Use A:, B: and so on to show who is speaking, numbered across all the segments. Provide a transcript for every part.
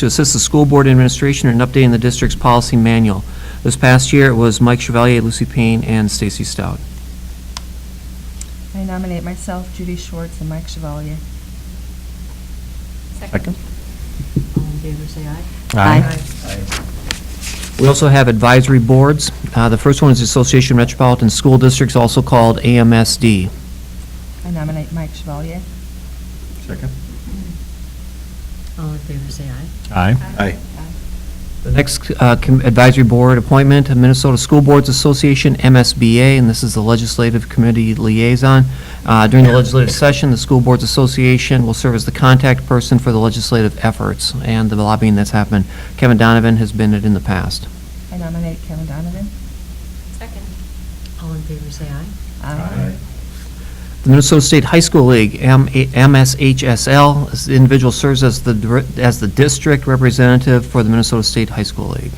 A: to assist the school board administration in updating the district's policy manual. This past year, it was Mike Chevalier, Lucy Payne, and Stacy Stout.
B: I nominate myself, Judy Schwartz, and Mike Chevalier.
A: Second.
C: All in favor, say aye.
A: We also have advisory boards. Uh, The first one is the Association of Metropolitan School Districts, also called AMSD.
B: I nominate Mike Chevalier.
D: Second.
C: All in favor, say aye.
D: Aye. Aye.
A: The next uh, com- advisory board appointment, Minnesota School Boards Association, MSBA, and this is the Legislative Committee Liaison. Uh, During the legislative session, the School Boards Association will serve as the contact person for the legislative efforts and the lobbying that's happened. Kevin Donovan has been it in the past.
B: I nominate Kevin Donovan.
E: Second.
C: All in favor, say aye.
B: Aye.
A: The Minnesota State High School League, M- MSHSL, this individual serves as the, dir- as the district representative for the Minnesota State High School League.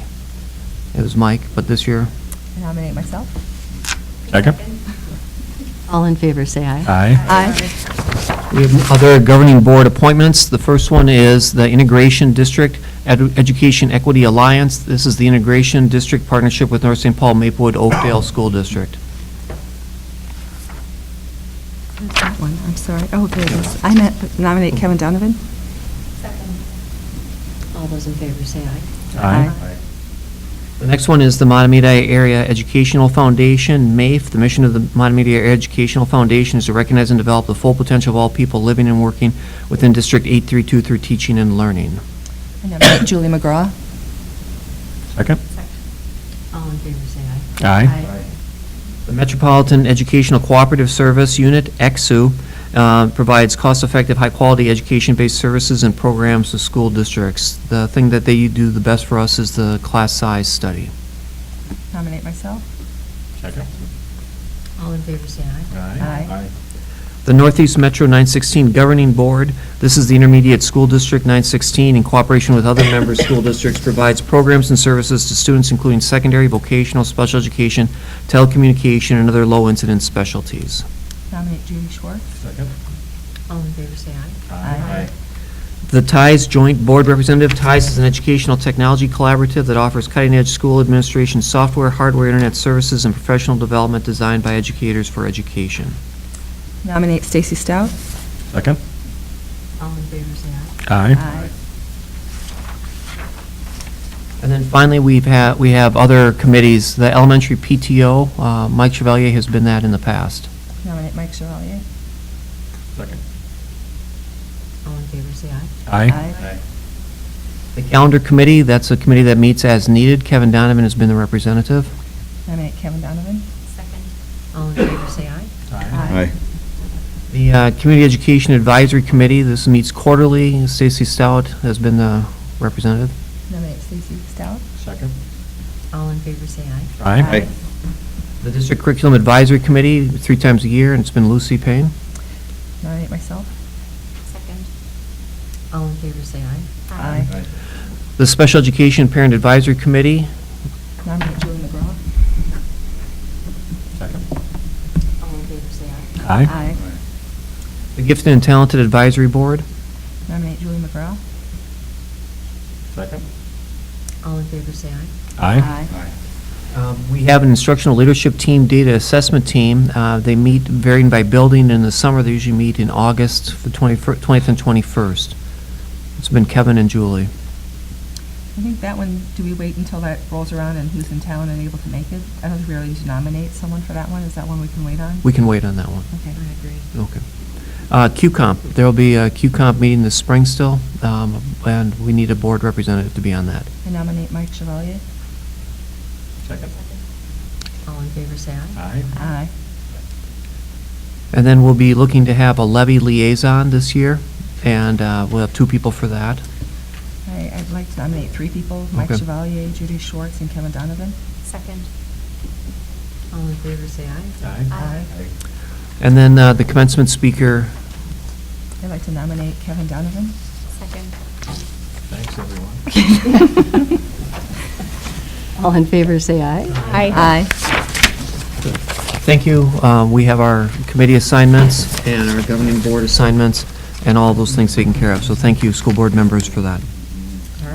A: It was Mike, but this year,
B: I nominate myself.
D: Second.
C: All in favor, say aye.
D: Aye.
B: Aye.
A: We have other governing board appointments. The first one is the Integration District Edu- Education Equity Alliance. This is the Integration District Partnership with North St. Paul Maplewood Oakdale School District.
B: That one, I'm sorry. Oh, there it is. I meant nominate Kevin Donovan.
E: Second.
C: All those in favor, say aye.
B: Aye.
A: The next one is the Matamidi Area Educational Foundation, MAEF. E. The mission of the Matamidi Area Educational Foundation is to recognize and develop the full potential of all people living and working within District 832 through teaching and learning.
B: I nominate Julie McGraw.
D: Second.
C: All in favor, say aye.
D: Aye.
A: The Metropolitan Educational Cooperative Service Unit, EXU, uh, provides cost-effective, high-quality education-based services and programs to school districts. The thing that they do the best for us is the class size study.
B: Nominate myself.
D: Second.
C: All in favor, say aye.
B: Aye.
A: The Northeast Metro 916 Governing Board, this is the intermediate school district 916 in cooperation with other member school districts, provides programs and services to students including secondary, vocational, special education, telecommunication, and other low-incidence specialties.
B: Nominate Judy Schwartz.
D: Second.
C: All in favor, say aye.
B: Aye.
A: The TIES Joint Board Representative, TIES is an educational technology collaborative that offers cutting-edge school administration software, hardware, internet services, and professional development designed by educators for education.
B: Nominate Stacy Stout.
D: Second.
C: All in favor, say aye.
B: Aye.
A: And then finally, we've had, we have other committees, the elementary PTO, uh, Mike Chevalier has been that in the past.
B: Nominate Mike Chevalier.
D: Second.
C: All in favor, say aye.
B: Aye.
A: The calendar committee, that's a committee that meets as needed, Kevin Donovan has been the representative.
B: Nominate Kevin Donovan.
E: Second.
C: All in favor, say aye.
B: Aye.
A: The uh, Community Education Advisory Committee, this meets quarterly, Stacy Stout has been the representative.
B: Nominate Stacy Stout.
D: Second.
C: All in favor, say aye.
B: Aye.
A: The District Curriculum Advisory Committee, three times a year, and it's been Lucy Payne.
B: Nominate myself.
E: Second.
C: All in favor, say aye.
B: Aye.
A: The Special Education Parent Advisory Committee,
B: Nominate Julie McGraw.
D: Second.
C: All in favor, say aye.
B: Aye.
A: the Gifted and Talented Advisory Board.
B: Nominate Julie McGraw.
D: Second.
C: All in favor, say aye.
B: Aye.
A: Um, We have an instructional leadership team, data assessment team. Uh, They meet varying by building in the summer. They usually meet in August, the 21st 20th and 21st. It's been Kevin and Julie.
B: I think that one, do we wait until that rolls around and who's in town and able to make it? I don't think we really need to nominate someone for that one. Is that one we can wait on?
A: We can wait on that one.
B: Okay.
C: I agree.
A: Okay. Uh, QComp, there'll be a QComp meeting this spring still, um, and we need a board representative to be on that.
B: I nominate Mike Chevalier.
D: Second.
C: All in favor, say aye.
D: Aye.
B: Aye.
A: And then we'll be looking to have a levy liaison this year, and uh, we'll have two people for that.
B: I, I'd like to nominate three people, Mike
A: Okay.
B: Chevalier, Judy Schwartz, and Kevin Donovan.
E: Second.
C: All in favor, say aye.
B: Aye.
A: And then uh, the commencement speaker,
B: I'd like to nominate Kevin Donovan.
E: Second.
D: Thanks, everyone.
C: All in favor, say aye.
B: Aye.
A: thank you. Uh, We have our committee assignments and our governing board assignments and all those things taken care of. So thank you, school board members, for that.
B: Mm.